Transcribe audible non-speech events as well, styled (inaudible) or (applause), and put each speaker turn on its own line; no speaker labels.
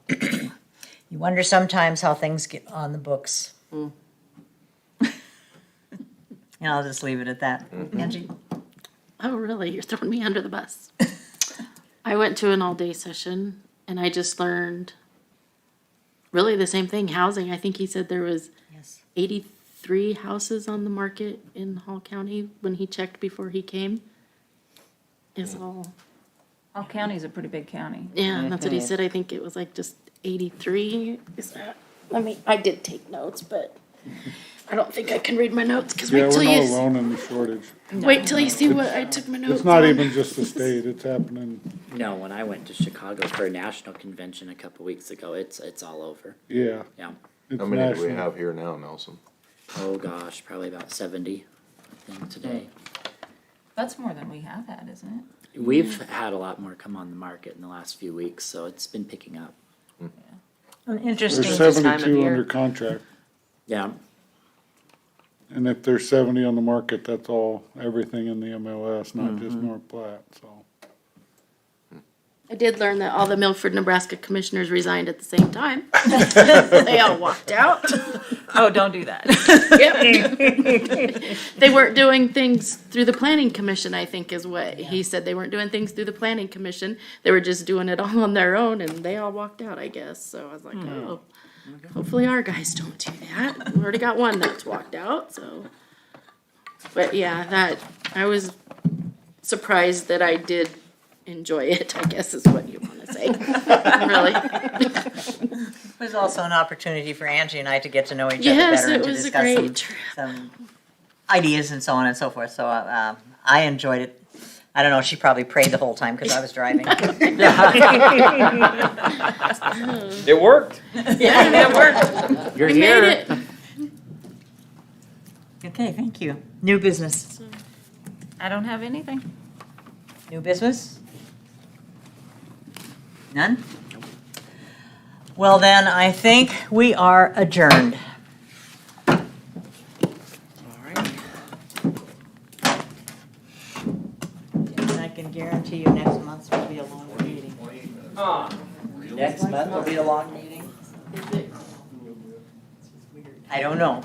You wonder sometimes how things get on the (laughs) books. And I'll just leave it at that. Angie?
Oh, really? You're throwing me under the bus. I went to an all day session and I just learned really the same thing housing. I think he said there was 83 houses on the market in Hall County when he checked before he came. Is all.
All county's a pretty big county.
Yeah, and that's what he said. I think it was like just 83. Is that? I mean, I did take notes, but I don't think I can read my notes because
Yeah,
wait till
we're not
you s-
alone in the shortage.
wait till you see what I took my notes.
It's not
on.
even just the state, it's happening,
No, when I went to Chicago for a national convention a couple weeks ago, it's it's all over.
yeah.
Yeah.
It's
How many do we
national.
have here now, Nelson?
Oh gosh, probably about seventy. I think today
That's more than we have had, isn't it?
we've had a lot more come on the market in the last few weeks, so it's been picking up.
An interesting
There's
time of
seventy-two under
year.
contract,
Yeah.
and if there's seventy on the market, that's all, everything in the MLS, not
Mm-hmm.
just North Platte, so.
I did learn that all the Milford, Nebraska commissioners resigned at the same time. (laughs) They all walked out.
Oh, don't do that.
Yep. They weren't doing things through the planning commission, I think is what he said. They weren't doing things through the planning commission. They were just doing it all on their own and they all walked out, I guess. So I was like, oh, hopefully our guys don't do that. We already got one that's walked out, so. But yeah, that, I was surprised that I did enjoy it, I guess is what you wanna say. Really.
It was also an opportunity for Angie and I to get to know each other
Yes,
better and
it
to
was a
discuss some
great trip.
some ideas and so on and so forth. So uh, um, I enjoyed it. I don't know, she probably prayed the whole time because I was driving.
It worked.
You're
We made it.
(laughs) Okay, thank you. New business.
(laughs) I don't have anything.
New business? None? Well, then, I think we are adjourned. And I can guarantee you next month's will be a long meeting.
Next month will be a long meeting.
I don't know.